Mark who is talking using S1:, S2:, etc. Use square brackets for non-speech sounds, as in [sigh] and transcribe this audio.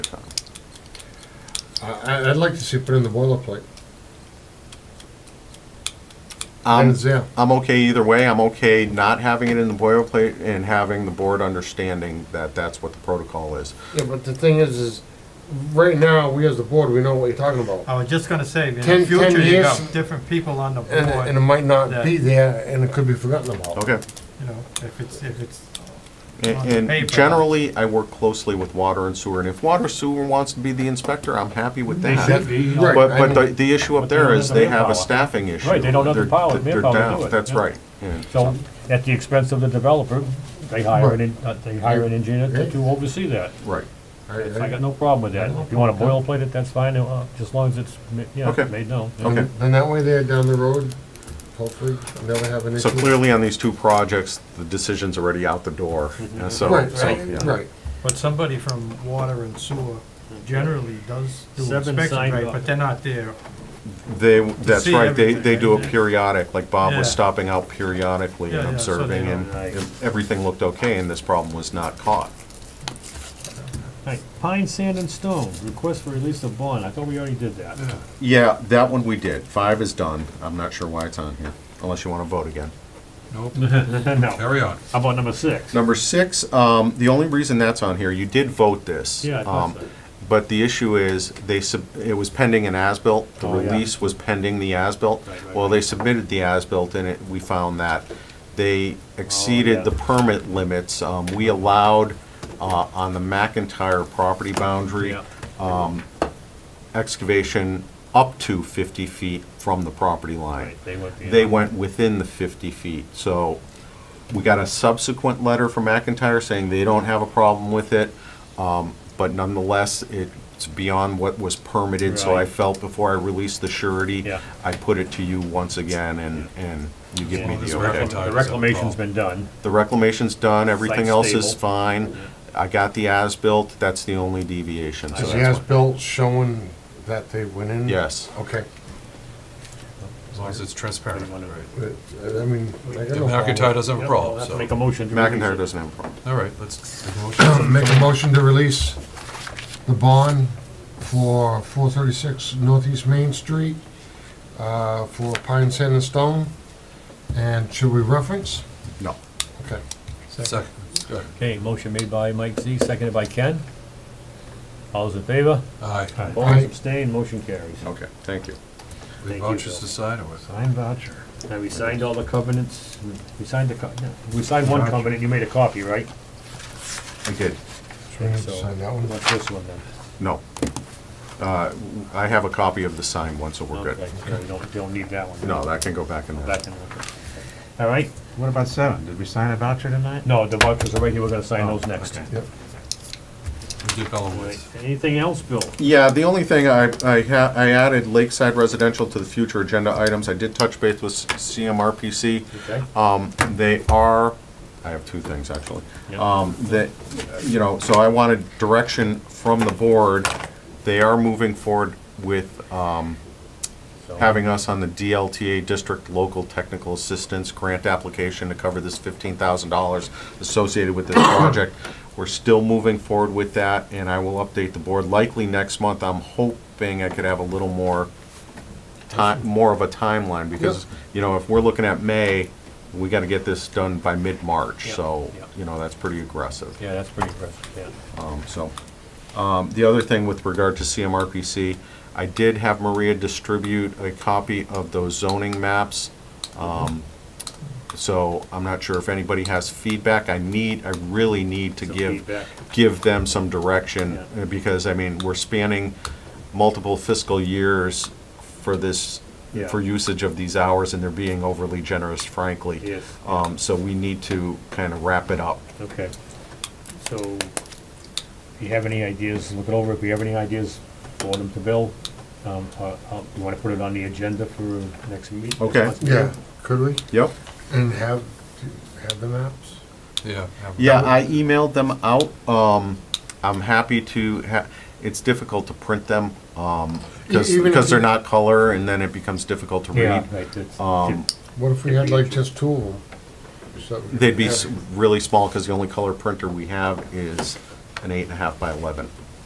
S1: I, I'd like to see it put in the boilerplate.
S2: I'm,
S1: And it's there.
S2: I'm okay either way. I'm okay not having it in the boilerplate and having the board understanding that that's what the protocol is.
S1: Yeah, but the thing is, is right now, we as the board, we know what you're talking about.
S3: I was just gonna say, in
S1: Ten-
S3: the
S1: ten
S3: future, you
S1: years-
S3: got different people on the
S1: And, and it
S3: board,
S1: might not be
S3: Yeah.
S1: there, and it could be forgotten about.
S2: Okay.
S3: you know, if it's, if it's, On the
S2: And and
S3: paper.
S2: generally, I work closely with water and sewer, and if water sewer wants to be the inspector, I'm happy with that.
S1: Right.
S2: But,
S1: I
S2: but the,
S1: mean-
S2: the issue up
S4: But they
S2: there
S4: don't
S2: is
S4: have the
S2: they have a
S4: manpower.
S2: staffing issue.
S4: Right, they don't have the
S2: They're-
S4: power-
S2: they're
S4: manpower to
S2: down.
S4: do it,
S2: That's
S4: yeah.
S2: right. yeah.
S4: So, at the expense of the developer, they hire an, en- uh, they hire an engineer to- to oversee that.
S2: Right.
S1: I-
S4: I got
S1: I-
S4: no problem with that. If you wanna boilerplate it, that's fine, uh, just as long as it's, ma-
S2: Okay.
S4: yeah, made known. yeah.
S2: Okay.
S1: Then that way there, down the road, hopefully, I'll never have an issue.
S2: So clearly on these two projects, the decision's already out the door, and so,
S1: Right,
S2: so,
S1: right,
S2: yeah.
S1: right.
S3: but somebody from water and sewer generally does do
S5: Seven
S3: inspections,
S5: signed
S3: right,
S5: off.
S3: but they're not there.
S2: They, that's
S3: see
S2: right, they,
S3: everything,
S2: they do a
S3: yeah.
S2: periodic, like Bob was
S3: Yeah.
S2: stopping out periodically
S3: Yeah,
S2: and
S3: yeah, so they
S2: observing, and
S4: don't- Right.
S2: if everything looked okay, and this problem was not caught.
S4: Right, pine, sand, and stone, request for release of bond, I thought we already did that.
S2: Yeah, that one we did. Five is done. I'm not sure why it's on here, unless you want to vote again.
S4: No,
S6: Carry on.
S4: how about number six?
S2: Number six, um, the only reason that's on here, you did vote this.
S4: Yeah, I thought
S2: um,
S4: so.
S2: But the issue is, they, sub- it was pending an as-built. The
S4: Oh, yeah.
S2: release was pending the as-built.
S4: Right, right,
S2: Well,
S4: right.
S2: they submitted the as-built, and it, we found that they
S4: Oh, yeah.
S2: exceeded the permit limits. Um, We allowed, uh, on the McIntyre property boundary,
S4: Yeah.
S2: excavation up to 50 feet from the property line.
S4: Right, they went beyond.
S2: They went within the 50 feet, so we got a subsequent letter from McIntyre saying they don't have a problem with it, um, but nonetheless, it's beyond what was permitted, so I
S4: Right.
S2: felt before I released the surety,
S4: Yeah.
S2: I put it to you once again, and, and you give me
S4: Yeah.
S2: the
S6: This
S2: okay.
S6: reclamation-
S4: The reclamation's been done.
S2: The reclamation's done, everything
S4: Site's
S2: else is
S4: stable.
S2: fine, I got the as-built, that's the only deviation, so
S1: Is
S2: that's
S1: the
S2: why-
S1: as-built showing that they went in?
S2: Yes.
S1: Okay.
S6: As long as it's transparent.
S4: Right.
S1: But, I mean, I got
S6: The
S1: no problem.
S6: McIntyre doesn't have a
S4: I'll
S6: problem,
S4: have to
S6: so.
S4: make a motion to release
S2: McIntyre
S4: it.
S2: doesn't have a problem.
S6: All right, let's make a
S1: [coughs]
S6: motion.
S1: Make a motion to release the bond for four thirty-six Northeast Main Street, uh, for pine, sand, and stone. And should we reference?
S2: No.
S1: Okay.
S6: Second. Go ahead.
S4: Okay, motion made by Mike Z, seconded by Ken. All those in favor?
S6: Aye.
S1: Aye.
S4: Opposed, abstained, motion carries.
S2: Okay, thank you.
S6: We
S4: Thank you,
S6: vouchers to
S4: Bill.
S6: sign or what?
S4: Signed voucher. And we signed all the covenants, we signed the, co- no, we signed one
S6: Voucher.
S4: covenant, you made a copy, right?
S2: I did.
S1: So we need to
S4: So-
S1: sign that one.
S4: What's this one then?
S2: No. Uh, I have a copy of the signed one, so we're good.
S4: Okay, so We don't, don't need that one.
S2: No, that can go back in there.
S4: Back and look. All right,
S7: What about seven? Did we sign a voucher tonight?
S4: no, the vouchers are right here, we're gonna sign those next.
S7: okay.
S1: Oh, Yep.
S6: We did Bella
S4: All
S6: Woods.
S4: right, Anything else, Bill?
S2: Yeah, the only thing I, I ha, I added Lakeside Residential to the future agenda items. I did touch base with CMRPC.
S4: Okay.
S2: Um, they are, I have two things actually.
S4: Yeah.
S2: Um, that, you know, so I wanted direction from the board. They are moving forward with, um,
S4: So-
S2: having us on the DLTA District Local Technical Assistance Grant application to cover this fifteen thousand dollars associated with this project. We're still moving forward with that, and I will update the board likely next month. I'm hoping I could have a little more time, more of a timeline, because, you know, if we're looking at May, we gotta get this done by mid-March,
S4: Yeah,
S2: so,
S4: yeah.
S2: you know, that's pretty aggressive.
S4: Yeah, that's pretty impressive, yeah.
S2: Um, So, um, the other thing with regard to CMRPC, I did have Maria distribute a copy of those zoning maps. Um, So I'm not sure if anybody has feedback. I need, I really need to
S4: Some
S2: give,
S4: feedback.
S2: give them some direction.
S4: Yeah.
S2: uh, Because, I mean, we're spanning multiple fiscal years for this,
S4: Yeah.
S2: for usage of these hours, and they're being overly generous, frankly.
S4: Yes.
S2: Um, So we need to kind of wrap it up.
S4: Okay. So, if you have any ideas, look it over, if you have any ideas, forward them to Bill. Um, uh, uh, you wanna put it on the agenda for next meeting?
S2: Okay.
S1: Yeah, could we?
S2: Yep.
S1: And have, have the maps?
S6: Yeah. have-
S2: Yeah, I emailed them out. Um, I'm happy to ha, it's difficult to print them, um, because,
S1: E- even if
S2: because they're
S1: you-
S2: not color and then it becomes difficult to
S4: Yeah,
S2: read.
S4: right, that's,
S2: Um,
S1: What if we had like just two of them? So that we
S2: They'd be
S1: could
S2: s-
S1: have-
S2: really small because the only color printer we have is an eight and a half by eleven.